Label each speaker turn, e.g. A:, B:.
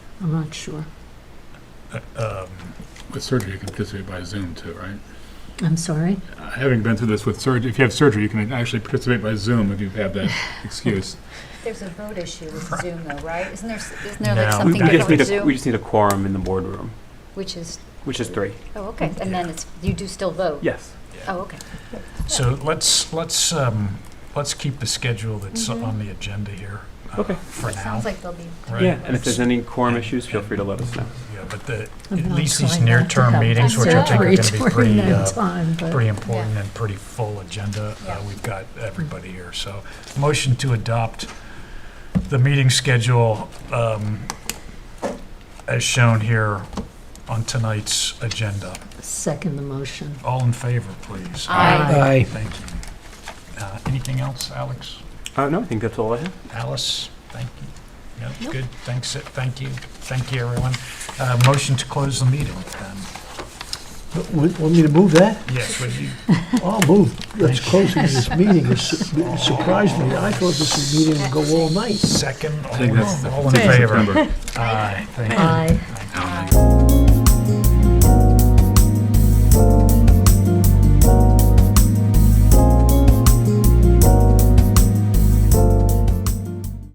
A: I'm not sure.
B: Um,
C: With surgery, you can participate by Zoom too, right?
A: I'm sorry.
C: Uh, Having been through this with surgery, if you have surgery, you can actually participate by Zoom if you have that excuse.
D: There's a vote issue with Zoom though, right? Isn't there, s- isn't there like
B: No.
E: We
D: something
E: Um, we just need
D: for
E: a,
D: Zoom?
E: we just need a quorum in the boardroom,
D: Which is,
E: which is three.
D: oh, okay, and then it's, you do still vote?
E: Yes.
D: Oh, okay.
B: So let's, let's, um, let's keep the schedule that's
D: Mhm.
B: on the agenda here. uh,
E: Okay.
B: For
D: It
B: now,
D: sounds like there'll be,
B: right?
E: Yeah, and if there's any quorum
B: And-
E: issues, feel free to let us know.
B: Yeah, but the,
A: I'm
B: At
A: not
B: least these
A: trying not
B: near-term
A: to have
B: meetings,
D: which I think are
A: surgery
B: gonna be
A: during
B: pretty,
A: that
B: uh,
A: time, but-
B: pretty important and pretty full agenda.
D: Yeah.
B: Uh, We've got everybody here, so motion to adopt the meeting schedule um, as shown here on tonight's agenda.
A: Second the motion.
B: All in favor, please.
D: Aye.
F: Aye.
B: Thank you. Uh, Anything else, Alex?
E: Uh, no, I think that's all I have.
B: Alice, thank you. Yeah, good, thanks, uh, thank you, thank you, everyone. Uh, Motion to close the meeting, then.
F: Want want me to move that?
B: Yes, would you?
F: I'll move. Let's close this meeting. It su- it surprised me. I thought this meeting would go all night.
B: Second,
C: I think that's
B: all
C: the
B: all in
C: fifteenth of
B: favor?
C: September.
B: Aye, thank you.
A: Aye.
B: Thank you.
D: aye.